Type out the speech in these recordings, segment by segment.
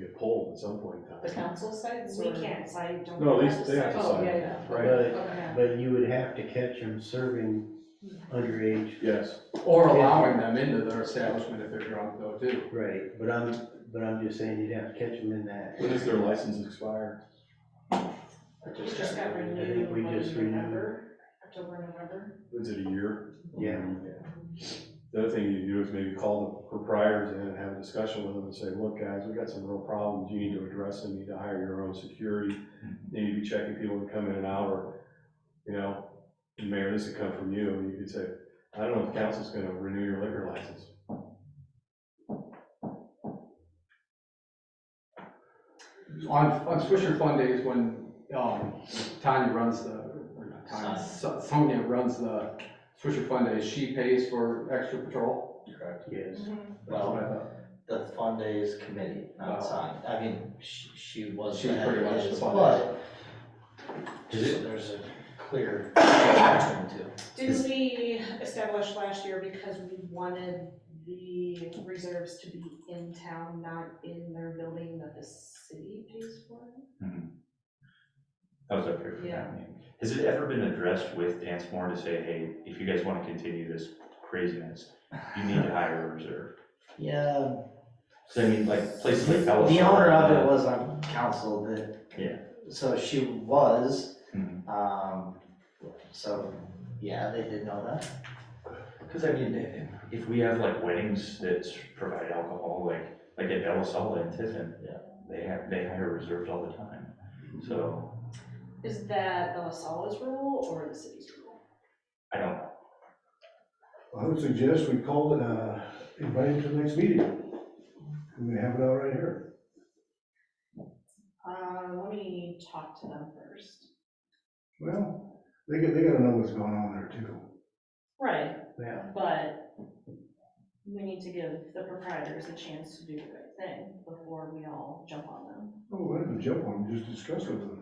at some point in time. The council sites? We or- can't decide, don't. No, have at least they have to Oh, sign yeah, it, yeah. right? But, Okay. but you would have to catch them serving underage, Yes, Or allowing them into their establishment if they're drunk though too. right, but I'm, but I'm just saying you'd have to catch them in that. when does their license expire? We just got renewed. I think we in just November, October, November. Is it a year? Yeah. The other thing you do is maybe call the proprietors in and have a discussion with them and say, look, guys, we got some real problems, you need to address them, you need to hire your own security, you need to be checking people that come in and out, or, you know, mayor, this could come from you, and you could say, I don't know if council's gonna renew your liquor license. On, on Swisher Fun Days, when, um, Tanya runs the, or not Tanya, So- Sonia runs the Swisher Fun Days, she pays for extra patrol. Correct. Yes, Mm-hmm. That's what I Well, thought. the fund days committee, Oh. not signed, I mean, she, she was. She's pretty much the fund But, Is just so there's a clear between the two. Did we establish last year because we wanted the reserves to be in town, not in their building that the city pays for? That was up here for Yeah. that meeting. Has it ever been addressed with Dance More to say, hey, if you guys want to continue this craziness, you need to hire a reserve? Yeah. So I mean, like places like Palo The owner of it Santo, was on council that. Yeah. So she was, Mhm. um, so, yeah, they did know that. Cause I mean, i- if we have like weddings that provide alcohol, like, like at Bella Sola in Tiffin, Yeah. they have, they hire reserves all the time. So Is that the Lasalle's rule or the city's rule? I don't, I would suggest we call it, uh, invite him to the next meeting. We have it all right here. Uh, let me talk to them first. Well, they got, they gotta know what's going on there too. Right, Yeah. but we need to give the proprietors a chance to do the right thing before we all jump on them. Oh, let them jump on, it, just discuss with them.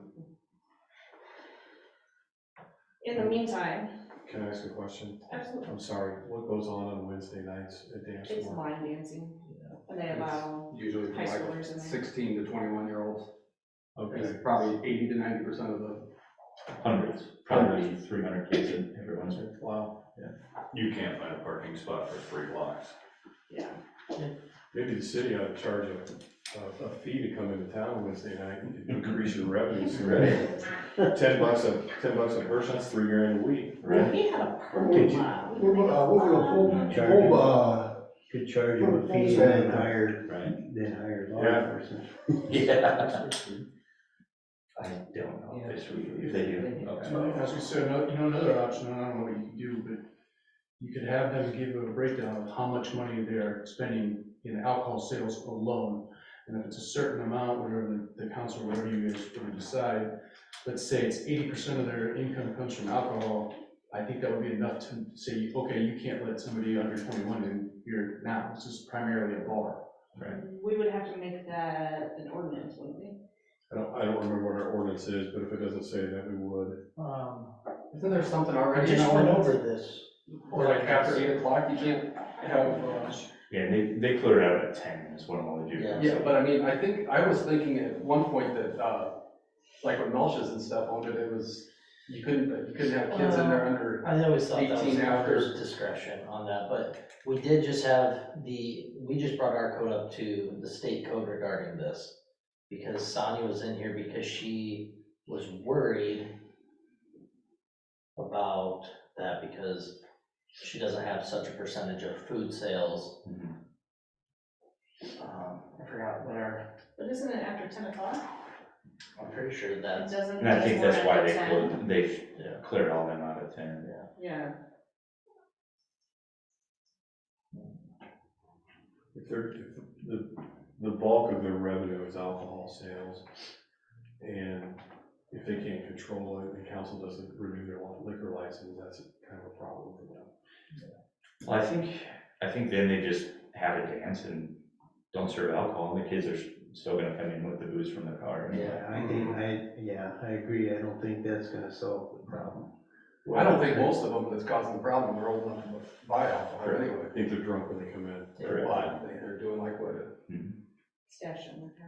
In the meantime, Can I ask a question? absolutely, I'm sorry, what goes on on Wednesday nights at Dance it's More? line dancing, and they allow, Usually for High like schoolers in there. sixteen to twenty-one year olds, Okay, it's probably eighty to ninety percent of the hundreds, probably three hundred kids in every Wednesday. wow, You can't find a parking spot for three blocks. yeah. maybe the city ought to charge a, a, a fee to come into town Wednesday night, and increase your revenues. Ten bucks a, ten bucks a person, that's three grand a week. Right? We had a parking lot. Um, We're gonna, uh, we're gonna pull, Charge him. pull, uh, could charge them a fee and then hire, then hire law Yeah. enforcement. Yeah. I don't know if it's, if they do. As we said, you know, another option, and I don't know what you do, but you could have them give a breakdown of how much money they're spending in alcohol sales alone. And if it's a certain amount, whatever the, the council, whatever you guys want to decide, let's say it's eighty percent of their income comes from alcohol, I think that would be enough to say, okay, you can't let somebody under twenty-one in here now, this is primarily a bar. We would have to make that an ordinance, wouldn't we? I don't, I don't remember what our ordinance is, but if it doesn't say that, we would. Um, Isn't there something I already in just went our, over this. or like after eight o'clock, you can't have, uh, Yeah, and they, they cleared out at ten is what I'm gonna do. Yeah. yeah, but I mean, I think, I was thinking at one point that, uh, like when Melch's and stuff owned it, it was, you couldn't, you couldn't have kids in there under, I always thought that was 18 after. first discretion on that, but we did just have the, we just brought our code up to the state code regarding this. Because Sonia was in here because she was worried about that because she doesn't have such a percentage of food sales. Mhm. Um, I forgot what our, But isn't it after ten o'clock? I'm pretty sure It that's, doesn't. And I think that's why they We're at cleared, they yeah. cleared all them out at ten. ten. Yeah, If they're, if the, the bulk of their revenue is alcohol sales, and if they can't control it, the council doesn't renew their liquor license, that's kind of a problem for them. Well, I think, I think then they just have a dance and don't serve alcohol, and the kids are s- still gonna come in with the booze from their car. anyway. Yeah, I think, I, yeah, I agree, I don't think that's gonna solve the problem. I don't think most of them that's causing the problem are old enough to buy alcohol anyway. I think they're drunk when they come in. Correct. But they're doing like what stash in the car.